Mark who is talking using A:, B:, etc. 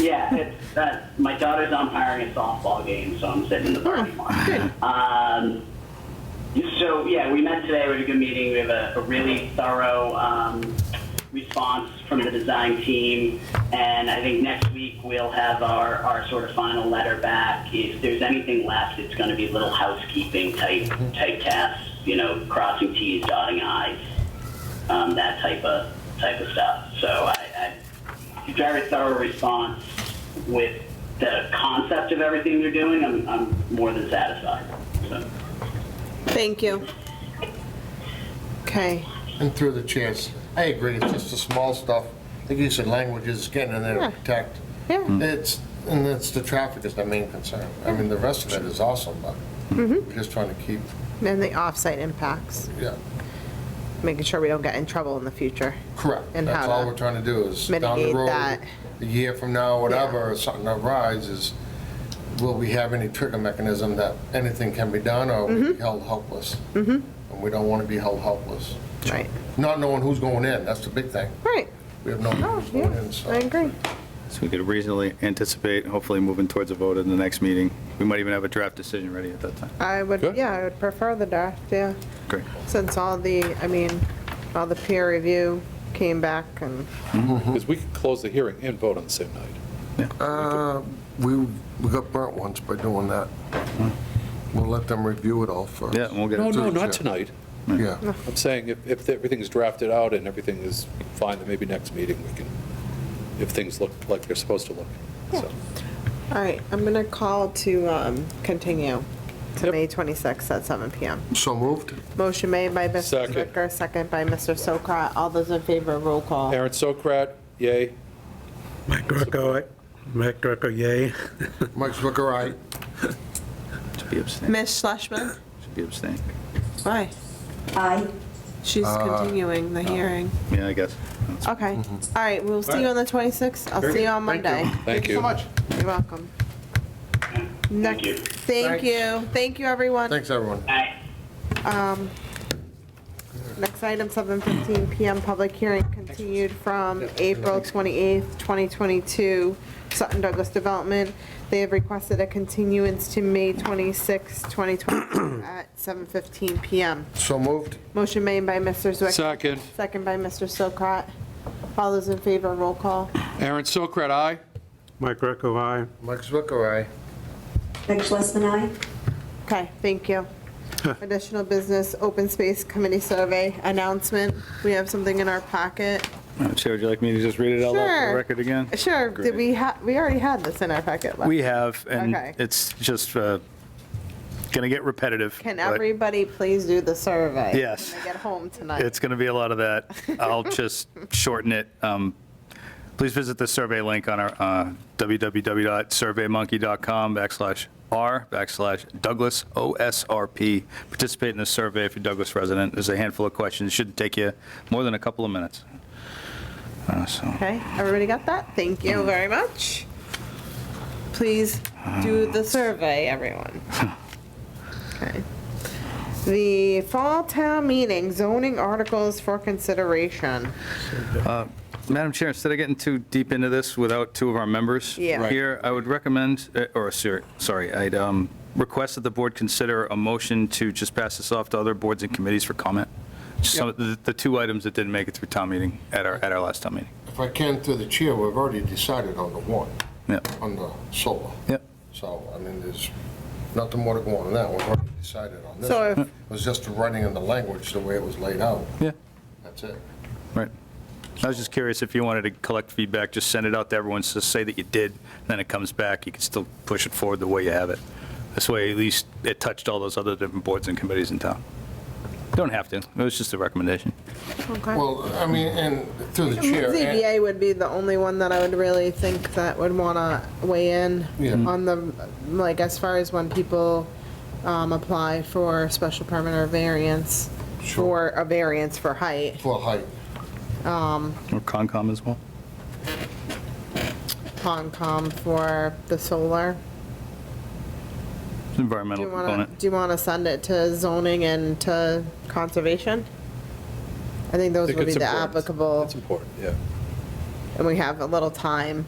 A: Yeah, it's that my daughter's umpiring a softball game, so I'm sitting in the parking lot. Um, so yeah, we met today. We had a good meeting. We have a, a really thorough um, response from the design team, and I think next week we'll have our, our sort of final letter back. If there's anything left, it's going to be little housekeeping type type tasks, you know, crossing T's, dotting I's, um, that type of type of stuff. So I, I very thorough response with the concept of everything they're doing. I'm, I'm more than satisfied. So.
B: Thank you. Okay,
C: And through the chairs, I agree, it's just the small stuff, the use of language is getting in there
B: Yeah.
C: to protect.
B: Yeah. Mm.
C: It's, and it's, the traffic is the main concern. I mean, the rest of it is awesome, but
B: Mm-hmm.
C: we're just trying to keep,
B: and the off-site impacts,
C: yeah,
B: making sure we don't get in trouble in the future.
C: correct.
B: And
C: That's
B: how
C: all
B: to
C: we're trying to do is down the
B: mitigate
C: road,
B: that.
C: a year from now, whatever, something arises, will we have any trigger mechanism that anything can be done or we
B: Mm-hmm.
C: held helpless? And we don't want to be held helpless.
B: Right,
C: Not knowing who's going in, that's the big thing.
B: right.
C: We have no idea
B: Oh,
C: who's going
B: yeah,
C: in, so.
B: I agree.
D: So we could reasonably anticipate, hopefully moving towards a vote in the next meeting. We might even have a draft decision ready at that time.
B: I would,
E: Good.
B: yeah, I would prefer the draft, yeah,
D: Great.
B: since all the, I mean, all the peer review came back and,
E: Because we could close the hearing and vote on the same night.
C: Uh, We, we got burnt once by doing that. We'll let them review it all first.
D: Yeah, and we'll get
E: No,
D: it.
E: no,
C: to the
E: not
C: chair.
E: tonight.
C: Yeah,
E: I'm saying if, if everything's drafted out and everything is fine, then maybe next meeting we can, if things look like they're supposed to look. So,
B: all right, I'm gonna call to um, continue to
E: Yep.
B: May 26th at 7 PM.
C: so moved?
B: Motion made by Mr.
E: Second.
B: Zwicker, second by Mr. Sokrat. All those in favor, roll call.
E: Aaron Sokrat, yay.
F: Mike Greco, I- Mike Greco, yay.
C: Mike Zwicker, aye.
D: Should be abstained.
B: Ms. Schlesman?
D: Should be abstained.
B: Aye.
G: Aye.
B: She's
E: Uh,
B: continuing the hearing.
D: Yeah, I guess.
B: Okay, all right, we'll see you on the 26th. I'll see you on Monday.
E: Mm-hmm. Thank you.
B: You're welcome. Next-
A: you.
B: Thank you, thank you, everyone.
C: Thanks, everyone.
A: Aye.
B: Next item, 7:15 PM, public hearing continued from April 28th, 2022, Sutton Douglas Development. They have requested a continuance to May 26th, 2022 at 7:15 PM.
C: So moved?
B: Motion made by Mr. Zwick.
E: Second,
B: Second by Mr. Sokrat. All those in favor, roll call.
E: Aaron Sokrat, aye.
F: Mike Greco, I.
C: Mike Zwicker, aye.
G: Meg Schlesman, aye.
B: Okay, thank you. Additional business, open space committee survey announcement. We have something in our packet.
D: Uh, Chair, would you like me to just read it out loud for
B: Sure.
D: the record again?
B: Sure,
D: Great.
B: did we have, we already had this in our packet. last-
D: We have, and
B: Okay.
D: it's just going to get repetitive.
B: Can
D: but
B: everybody please do the survey?
D: Yes.
B: When they get home tonight.
D: It's going to be a lot of that. I'll just shorten it. Um, Please visit the survey link on our uh, www.surveymonkey.com backslash r backslash Douglas OSRP. Participate in the survey if you're a Douglas resident. There's a handful of questions. Shouldn't take you more than a couple of minutes. Uh, So.
B: Okay, everybody got that? Thank
D: Mm.
B: you very much. Please do the survey, everyone. Okay. The Fall Town Meeting zoning articles for consideration.
D: Madam Chair, instead of getting too deep into this without two of our members
B: Yeah. Right.
D: here, I would recommend, uh, or, sir- sorry, I'd um, request that the board consider a motion to just pass this off to other boards and committees for comment. Just some, of the the two items that didn't make it through town meeting, at our, at our last town meeting.
C: If I can, through the chair, we've already decided on the one,
D: Yeah,
C: on the solar.
D: yeah.
C: So, I mean, there's nothing more to go on than that, we've already decided on this.
B: So if-
C: It was just the writing and the language, the way it was laid out.
D: Yeah.
C: That's it.
D: Right. I was just curious if you wanted to collect feedback, just send it out to everyone, so say that you did, then it comes back, you can still push it forward the way you have it. This way, at least, it touched all those other different boards and committees in town. Don't have to, it was just a recommendation.
B: Okay.
C: Well, I mean, and through the chair. and-
B: ZBA would be the only one that I would really think that would want to weigh in
C: Yeah.
B: on the, like, as far as when people um, apply for special permit or variance, for
C: Sure.
B: a variance for height.
C: For height,
D: Or Concom as well?
B: Concom for the solar. Do
D: Environmental
B: you want to,
D: component.
B: do you want to send it to zoning and to conservation? I think
E: I
B: those
E: think
B: would be
E: it's
B: the
E: important.
B: applicable,
E: It's important, yeah.
B: and we have a little time